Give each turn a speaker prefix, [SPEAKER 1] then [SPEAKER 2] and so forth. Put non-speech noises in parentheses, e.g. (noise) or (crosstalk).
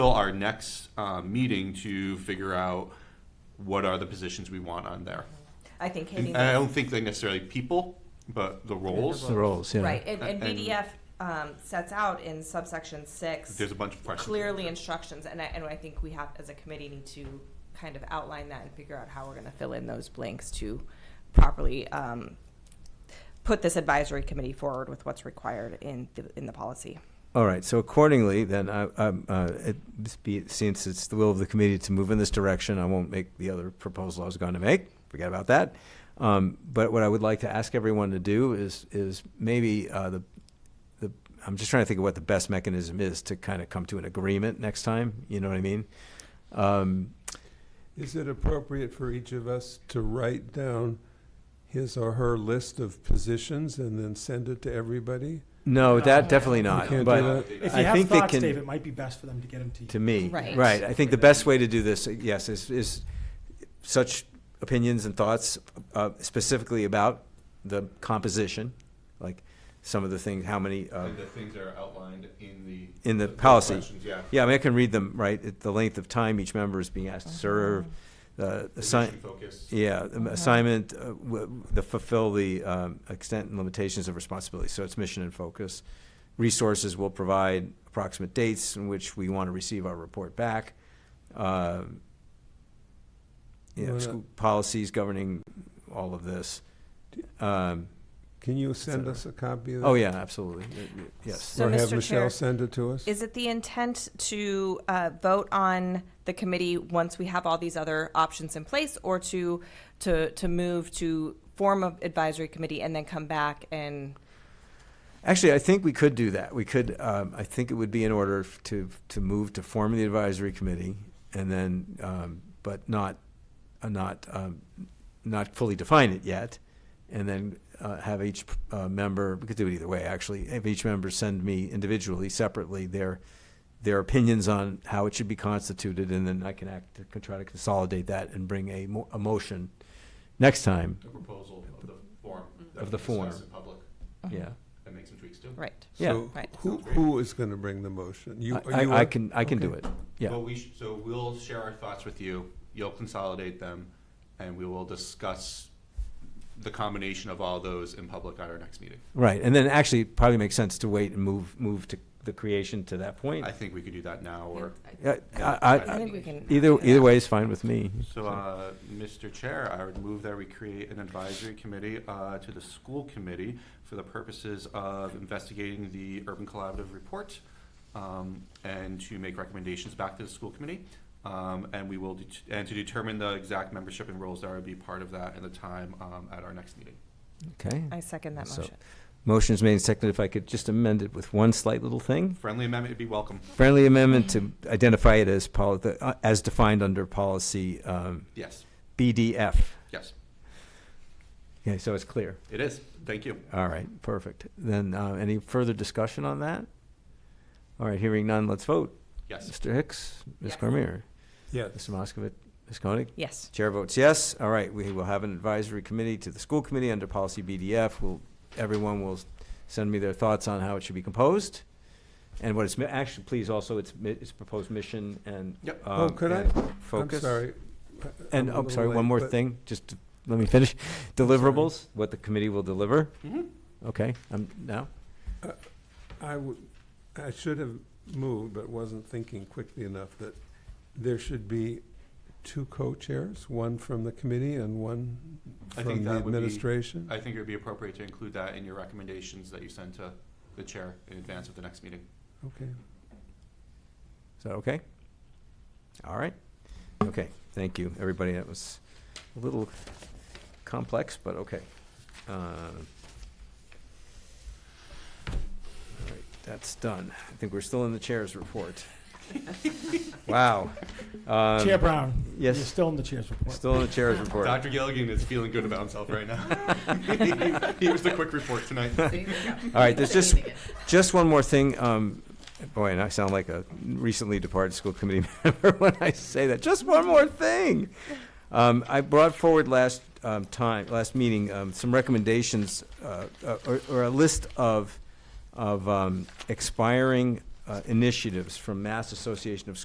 [SPEAKER 1] till our next uh, meeting to figure out what are the positions we want on there.
[SPEAKER 2] I think Katie,
[SPEAKER 1] And I don't think they necessarily people, but the roles.
[SPEAKER 3] The roles, yeah.
[SPEAKER 2] right, and, and
[SPEAKER 1] And-
[SPEAKER 2] BDF um, sets out in subsection six
[SPEAKER 1] There's a bunch of questions.
[SPEAKER 2] clearly instructions, and I, and I think we have, as a committee, need to kind of outline that and figure out how we're gonna fill in those blanks to properly um, put this advisory committee forward with what's required in, the in the policy.
[SPEAKER 3] All right, so accordingly, then, I, I'm, uh, it, this be- since it's the will of the committee to move in this direction, I won't make the other proposal I was going to make, forget about that. Um, but what I would like to ask everyone to do is, is maybe, uh, the, the, I'm just trying to think of what the best mechanism is to kind of come to an agreement next time, you know what I mean? Um,
[SPEAKER 4] Is it appropriate for each of us to write down his or her list of positions and then send it to everybody?
[SPEAKER 3] no, that, definitely
[SPEAKER 4] You
[SPEAKER 3] not,
[SPEAKER 4] can't do
[SPEAKER 3] but uh,
[SPEAKER 4] that?
[SPEAKER 1] If
[SPEAKER 5] If
[SPEAKER 3] I
[SPEAKER 5] you have
[SPEAKER 3] think they
[SPEAKER 5] thoughts,
[SPEAKER 3] can-
[SPEAKER 5] Dave, it might be best for them to get them to you.
[SPEAKER 3] to me.
[SPEAKER 2] Right.
[SPEAKER 3] Right. I think the best way to do this, uh, yes, is, is such opinions and thoughts uh, specifically about the composition, like some of the things, how many, uh,
[SPEAKER 1] And the things that are outlined in the.
[SPEAKER 3] In the policy.
[SPEAKER 1] questions, Yeah.
[SPEAKER 3] yeah, I mean, I can read them, right? At The length of time each member is being asked to serve, uh, the
[SPEAKER 1] Position
[SPEAKER 3] assign,
[SPEAKER 1] Focus.
[SPEAKER 3] yeah, um, assignment, uh, w- the fulfill the um, extent and limitations of responsibility. So it's mission and focus. Resources will provide approximate dates in which we want to receive our report back. Um, you know,
[SPEAKER 4] Why not?
[SPEAKER 3] school policies governing all of this. Um,
[SPEAKER 4] Can you send us a copy of that?
[SPEAKER 3] oh yeah, absolutely. Y- y- Yes.
[SPEAKER 2] So,
[SPEAKER 4] Or have
[SPEAKER 2] Mr. Chair-
[SPEAKER 4] Michelle send it to us?
[SPEAKER 2] Is it the intent to uh, vote on the committee once we have all these other options in place, or to, to, to move to form an advisory committee and then come back and,
[SPEAKER 3] Actually, I think we could do that. We could. Um, I think it would be in order f- to to move to form the advisory committee, and then, um, but not, uh, not, um, not fully define it yet, and then uh, have each uh, member. We could do it either way. Actually, have each member send me individually, separately their their opinions on how it should be constituted, and then I can act to con- try to consolidate that and bring a, mo- a motion next time.
[SPEAKER 1] The proposal of the form. that
[SPEAKER 3] Of
[SPEAKER 1] we
[SPEAKER 3] the form.
[SPEAKER 1] discuss in public
[SPEAKER 4] Uh-huh.
[SPEAKER 3] Yeah.
[SPEAKER 1] and make some tweaks to.
[SPEAKER 2] right?
[SPEAKER 3] Yeah.
[SPEAKER 4] So
[SPEAKER 2] Right.
[SPEAKER 4] who,
[SPEAKER 1] Sounds great.
[SPEAKER 4] who is going to bring the motion? You-
[SPEAKER 3] I,
[SPEAKER 4] are you
[SPEAKER 3] I, I
[SPEAKER 4] up?
[SPEAKER 3] can I can do
[SPEAKER 4] Okay.
[SPEAKER 3] it. Yeah.
[SPEAKER 1] Well, we, sh- so we'll share our thoughts with you, you'll consolidate them, and we will discuss the combination of all those in public at our next meeting.
[SPEAKER 3] Right, and then actually it probably makes sense to wait and move, move to the creation to that point.
[SPEAKER 1] I think we could do that now, or,
[SPEAKER 3] Yeah, I- I-
[SPEAKER 2] I think we can.
[SPEAKER 3] Either, either way is fine with me.
[SPEAKER 1] so, uh, Mr. Chair, I would move that we create an advisory committee, uh, to the school committee for the purposes of investigating the urban collaborative report, um, and to make recommendations back to the school committee. Um, and we will, det- and to determine the exact membership and roles that would be part of that and the time, um, at our next meeting.
[SPEAKER 3] Okay.
[SPEAKER 2] I second that
[SPEAKER 3] So-
[SPEAKER 2] motion.
[SPEAKER 3] Motion's made and seconded. If I could just amend it with one slight little thing.
[SPEAKER 1] Friendly amendment would be welcome.
[SPEAKER 3] Friendly amendment to identify it as poli, the- uh, as defined under policy, um,
[SPEAKER 1] Yes,
[SPEAKER 3] BDF.
[SPEAKER 1] yes,
[SPEAKER 3] Okay, so it's clear.
[SPEAKER 1] it is. Thank you.
[SPEAKER 3] All right, perfect. Then, uh, any further discussion on that? All right, hearing none, let's vote.
[SPEAKER 1] Yes.
[SPEAKER 3] Mr. Hicks, Ms.
[SPEAKER 2] Yes.
[SPEAKER 3] Cormier,
[SPEAKER 4] Yes.
[SPEAKER 3] Mr. Moskovich, Ms. Koenig?
[SPEAKER 2] Yes. (laughs)
[SPEAKER 3] Chair votes yes. All right, we will have an advisory committee to the school committee under policy BDF. Will, everyone will send me their thoughts on how it should be composed. And what it's, mi- actually, please also, it's, mi- it's proposed mission and.
[SPEAKER 1] Yep.
[SPEAKER 3] um,
[SPEAKER 4] Oh, could I?
[SPEAKER 3] and
[SPEAKER 4] I'm
[SPEAKER 3] Focus.
[SPEAKER 4] sorry.
[SPEAKER 3] And,
[SPEAKER 4] I'm a
[SPEAKER 3] oh,
[SPEAKER 4] little
[SPEAKER 3] sorry,
[SPEAKER 4] late,
[SPEAKER 3] one more
[SPEAKER 4] but-
[SPEAKER 3] thing, just, to- let me finish. Deliverables, what the committee will deliver.
[SPEAKER 1] Mhm.
[SPEAKER 3] Okay, I'm, now,
[SPEAKER 4] I would, I should have moved, but wasn't thinking quickly enough that there should be two co-chairs, one from the committee and one
[SPEAKER 1] I
[SPEAKER 4] from
[SPEAKER 1] think
[SPEAKER 4] the
[SPEAKER 1] that would be-
[SPEAKER 4] administration.
[SPEAKER 1] I think it would be appropriate to include that in your recommendations that you send to the chair in advance of the next meeting.
[SPEAKER 4] Okay.
[SPEAKER 3] is that okay? All right, okay, thank you, everybody. That was a little complex, but okay. Um, All right, that's done. I think we're still in the chair's report. Wow. Um,
[SPEAKER 5] Chair Brown, you're
[SPEAKER 3] Yes,
[SPEAKER 5] still in the chair's report.
[SPEAKER 3] still in the chair's report.
[SPEAKER 1] Dr. Gilligan is feeling good about himself right now. (laughs) He was the quick report tonight.
[SPEAKER 3] All right, there's just, just one more thing. Um, boy, and I sound like a recently departed school committee (laughs) member when I say that. Just one more thing. Um, I brought forward last um, time, last meeting, um, some recommendations uh, uh, or, or a list of of um, expiring uh, initiatives from Mass Association of